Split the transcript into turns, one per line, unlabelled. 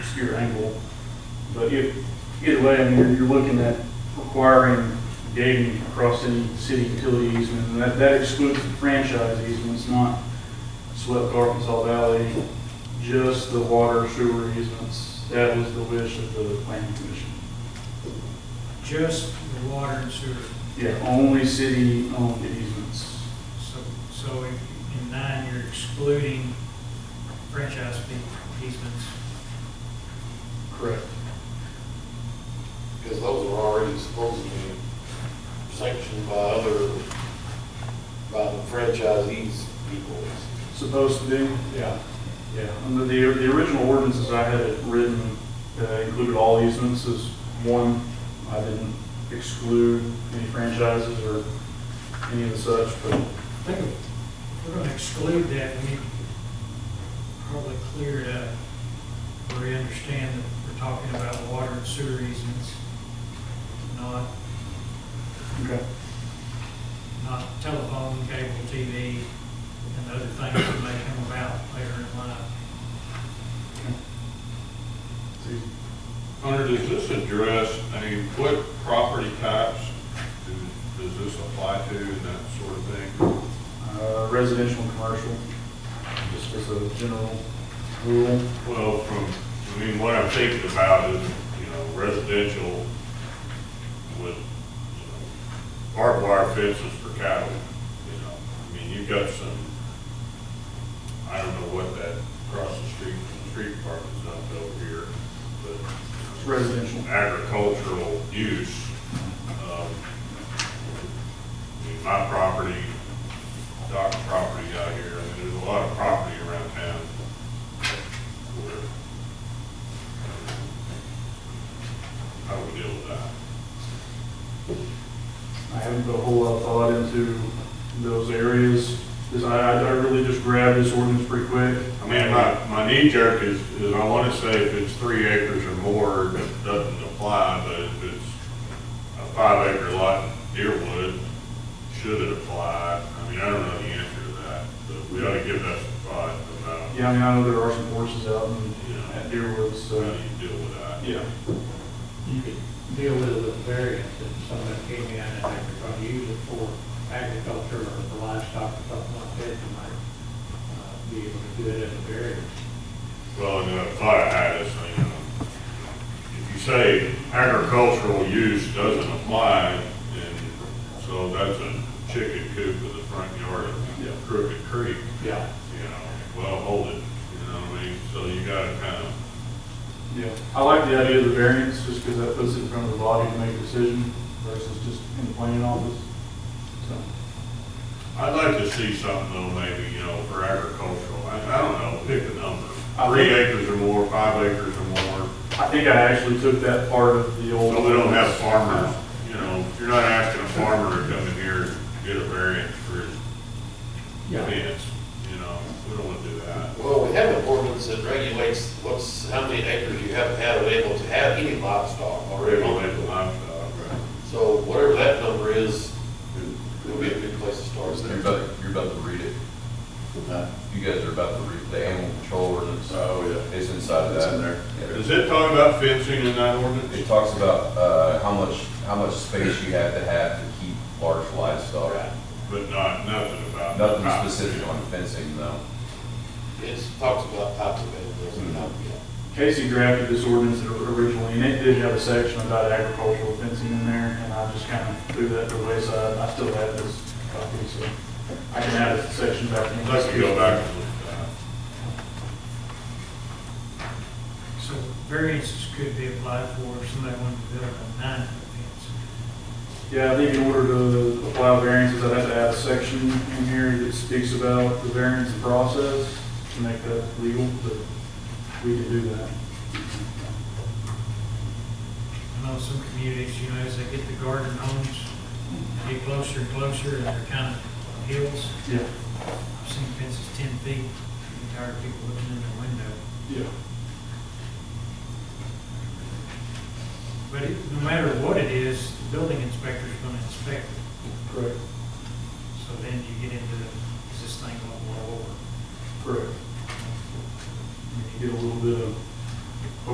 your angle. But if, either way, I mean, you're- you're looking at requiring gating across any city utilities, and that, that excludes the franchise easements, not swept Arkansas Valley, just the water sewer easements. That was the wish of the planning commission.
Just the water and sewer.
Yeah, only city-owned easements.
So, so in in nine, you're excluding franchise fee easements.
Correct.
Because those are already supposedly sanctioned by other, by the franchisees people.
Supposed to be?
Yeah.
Yeah, under the, the original ordinances I had it written, uh, included all easements as one. I didn't exclude any franchises or any of the such, but
I think if we're gonna exclude that, we need to probably clear it up, where we understand that we're talking about water and sewer easements, not,
Okay.
not telephone, cable, TV, and other things that may come about later in life.
Hunter, does this address, I mean, what property types do- does this apply to and that sort of thing?
Uh, residential and commercial, just as a general rule.
Well, from, I mean, what I'm thinking about is, you know, residential with, you know, barbed wire fences for cattle, you know. I mean, you've got some, I don't know what that across the street from the street department's not built here, but.
It's residential.
agricultural use. um, I mean, My property, Doc's property out here, I mean, there's a lot of property around town. where How do we deal with that?
I haven't put a whole lot of thought into those areas, 'cause I, I really just grabbed this ordinance pretty quick.
I mean, my, my knee jerk is, is I wanna say if it's three acres or more, it doesn't apply, but if it's a five acre lot in Deerwood, should it apply? I mean, I don't know the answer to that, but we ought to give that some thought about
Yeah, I mean, I know there are some horses out in,
Yeah.
at Deerwood, so,
how you deal with that.
yeah.
You could deal with it with variance, if someone came in and they were gonna use it for agriculture or for livestock or something like that, you might uh, be able to do it as a variance.
Well, and I thought I had this, you know, if you say agricultural use doesn't apply, and so that's a chicken coop with a front yard of Crooked Creek.
Yeah.
you know, well, hold it, you know what I mean? So you gotta kind of,
Yeah, I like the idea of the variance, just because that puts it in front of the body to make a decision versus just in the planning office. So,
I'd like to see something though, maybe, you know, for agricultural, I, I don't know, pick a number.
I
Three
think-
acres or more, five acres or more,
I think I actually took that part of the old.
so we don't have farmers, you know, you're not asking a farmer to come in here and get a variance for his
Yeah.
fence, you know, we don't wanna do that.
Well, we have an ordinance that regulates what's, how many acres you have to have able to have any livestock
We
already.
don't have the livestock, right?
So whatever that number is, it'll be a good place to start.
You're about, you're about to read it. You guys are about to read the animal control ordinance.
Oh, yeah.
It's inside that. in there.
Does it talk about fencing in that
It
ordinance?
talks about, uh, how much, how much space you have to have to keep large livestock.
Right.
But not, nothing about.
Nothing specific on fencing, though.
It talks about types of animals and how, yeah.
Casey drafted this ordinance originally, and it did have a section about agricultural fencing in there, and I just kind of threw that to the wayside, I still have this copy, so I can add a section back. in.
Let's go back and look at that.
So variances could be applied for if somebody wanted to build a nine foot fence.
Yeah, I think in order to apply variances, I'd have to add a section in here that speaks about the variance process to make that legal, but we can do that.
I know some communities, you know, as they get the garden homes, they get closer and closer, and they're kind of hills.
Yeah,
I've seen fences ten feet, I'm tired of people looking in their window.
yeah.
But it- no matter what it is, the building inspector's gonna inspect it.
Correct,
So then you get into, is this thing going to blow over?
correct. And You get a little bit of